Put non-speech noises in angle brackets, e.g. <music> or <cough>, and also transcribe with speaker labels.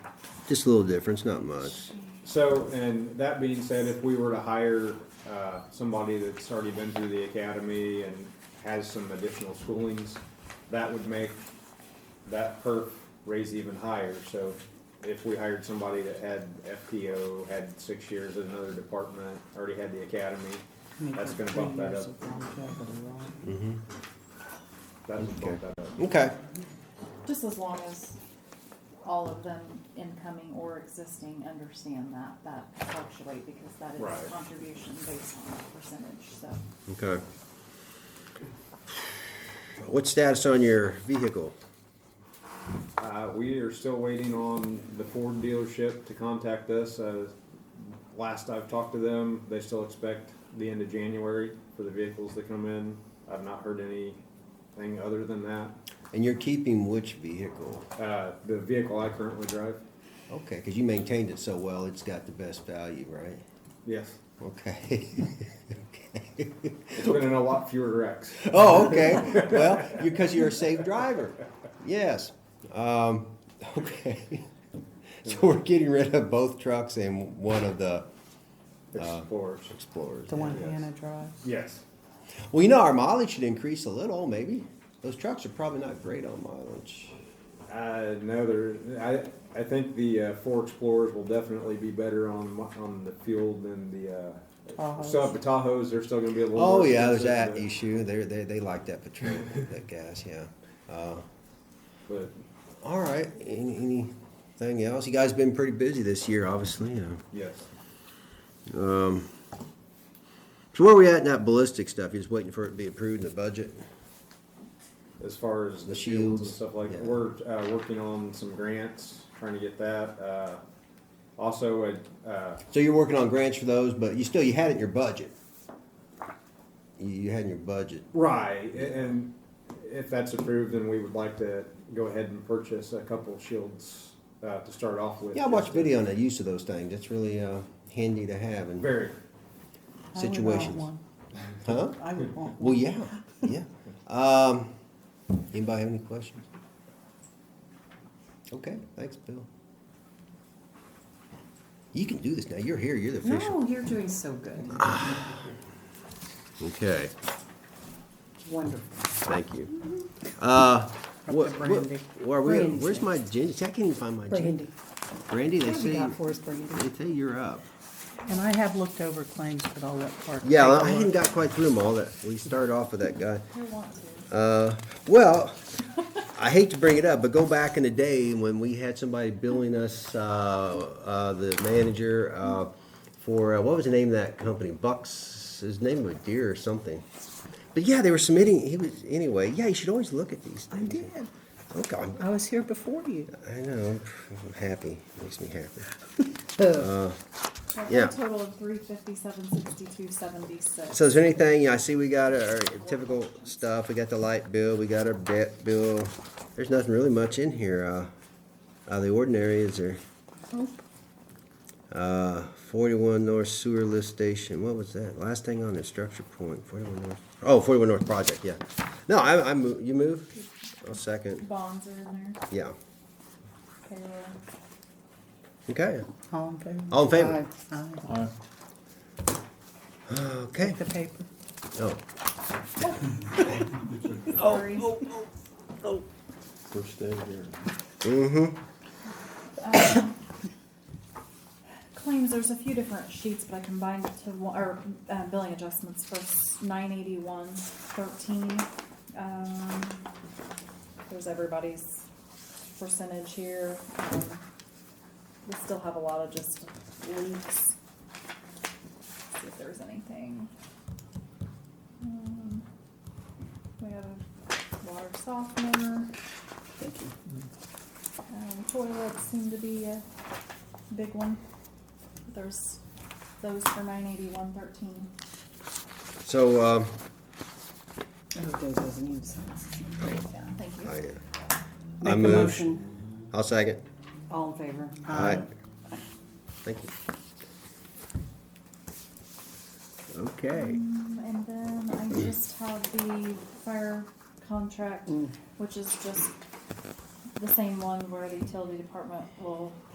Speaker 1: Just a little difference, not much.
Speaker 2: So, and that being said, if we were to hire uh, somebody that's already been through the academy and has some additional schoolings, that would make that perf raise even higher. So if we hired somebody that had FTO, had six years in another department, already had the academy, that's gonna bump that up.
Speaker 1: Hmm.
Speaker 2: That would bump that up.
Speaker 1: Okay.
Speaker 3: Just as long as all of them incoming or existing understand that, that can fluctuate because that
Speaker 2: Right.
Speaker 3: is contribution based on a percentage, so.
Speaker 1: Okay. What status on your vehicle?
Speaker 2: Uh, we are still waiting on the Ford dealership to contact us. Uh, last I've talked to them, they still expect the end of January for the vehicles to come in. I've not heard anything other than that.
Speaker 1: And you're keeping which vehicle?
Speaker 2: Uh, the vehicle I currently drive,
Speaker 1: Okay, because you maintained it so well, it's got the best value, right?
Speaker 2: yes,
Speaker 1: Okay. <laughs> okay.
Speaker 2: it's been in a lot fewer wrecks.
Speaker 1: Oh, okay. Well, because you're a safe driver. Yes. Um, okay. <laughs> So we're getting rid of both trucks and one of the Uh,
Speaker 2: Explorers,
Speaker 1: Explorers.
Speaker 4: The one
Speaker 2: Yes.
Speaker 4: Hannah drives.
Speaker 2: yes.
Speaker 1: Well, you know, our mileage should increase a little, maybe. Those trucks are probably not great on mileage.
Speaker 2: Uh, no, there, I, I think the, uh, four Explorers will definitely be better on, mu- on the fuel than the, uh,
Speaker 4: Tahoes.
Speaker 2: so the Tahoes, they're still gonna be a little.
Speaker 1: Oh
Speaker 2: more
Speaker 1: yeah, there's
Speaker 2: expensive,
Speaker 1: that
Speaker 2: but-
Speaker 1: issue. They they they like that petrol, that gas. Yeah. Uh,
Speaker 2: But
Speaker 1: all right. Any, anything else? You guys been pretty busy this year, obviously. You know.
Speaker 2: Yes.
Speaker 1: So where are we at in that ballistic stuff? You're just waiting for it to be approved in the budget.
Speaker 2: As far as
Speaker 1: The
Speaker 2: the shields and
Speaker 1: shields,
Speaker 2: stuff like,
Speaker 1: yeah.
Speaker 2: that, we're, uh, working on some grants, trying to get that, uh, also, uh, uh,
Speaker 1: So you're working on grants for those, but you still you had it in your budget. You, you had in your budget.
Speaker 2: right, a- and if that's approved, then we would like to go ahead and purchase a couple shields, uh, to start off with.
Speaker 1: Yeah, I watched
Speaker 2: just
Speaker 1: video on the use of those things. That's really uh, handy to have in
Speaker 2: Very,
Speaker 4: I would want
Speaker 1: situations.
Speaker 4: one.
Speaker 1: Huh?
Speaker 4: I would want one.
Speaker 1: Well, yeah, yeah. Um, anybody have any questions? Okay, thanks, Bill. You can do this now. You're here. You're the official.
Speaker 5: No, you're doing so good.
Speaker 1: Ah. Okay,
Speaker 5: Wonderful.
Speaker 1: thank you. Uh, what,
Speaker 5: the
Speaker 1: what,
Speaker 5: brandy.
Speaker 1: where are we,
Speaker 4: Mm-hmm. Brandy.
Speaker 1: where's my gin? I can't even find my gin.
Speaker 4: Brandy.
Speaker 1: Brandy, they
Speaker 4: What have you
Speaker 1: say,
Speaker 4: got for us, Brandy?
Speaker 1: they say you're up.
Speaker 4: And I have looked over claims, but I'll let Parker.
Speaker 1: Yeah,
Speaker 4: take
Speaker 1: I
Speaker 4: a look.
Speaker 1: hadn't got quite through them all. That we started off with that guy.
Speaker 3: Who wants to?
Speaker 1: Uh, well, I hate to bring it up, but go back in the day when we had somebody billing us, uh, uh, the manager, uh, for, uh, what was the name of that company? Bucks, his name was Deer or something. But yeah, they were submitting, he was, anyway, yeah, you should always look at these things.
Speaker 4: did.
Speaker 1: Okay, I'm-
Speaker 4: I was here before you.
Speaker 1: I know, I'm happy, makes me happy.
Speaker 3: So for
Speaker 1: Yeah.
Speaker 3: a total of three fifty-seven, sixty-two, seventy-six.
Speaker 1: So is there anything, I see we got our typical stuff, we got the light bill, we got our debt bill. There's nothing really much in here, uh, out of the ordinary, is there? Uh, forty-one North Sewer Lift Station, what was that? Last thing on there, Structure Point, forty-one North, oh, 41 North Project, yeah. No, I, I move, you move? I'll second,
Speaker 3: Bonds are in there,
Speaker 1: yeah,
Speaker 3: payroll.
Speaker 1: okay,
Speaker 4: All in favor?
Speaker 1: All in favor.
Speaker 4: Aye. Aye.
Speaker 1: okay,
Speaker 4: The paper.
Speaker 1: oh,
Speaker 3: Sorry.
Speaker 6: First day here.
Speaker 1: mm-hmm,
Speaker 3: Claims, there's a few different sheets, but I combined it to, one- or, uh, billing adjustments for nine eighty-one thirteen. Um, there's everybody's percentage here. Um, We still have a lot of just leaks. See if there's anything. Um, We have a water softener. Um, toilets seem to be a big one. There's those for nine eighty-one thirteen.
Speaker 1: so, um,
Speaker 4: Oh, those doesn't even sound-
Speaker 3: Yeah, thank you.
Speaker 1: I, uh,
Speaker 5: Make a
Speaker 1: move.
Speaker 5: motion,
Speaker 1: I'll second.
Speaker 5: all in favor?
Speaker 1: Alright. Thank you. Okay.
Speaker 3: Um, And then I just have the fire contract, which is just the same one where the utility department will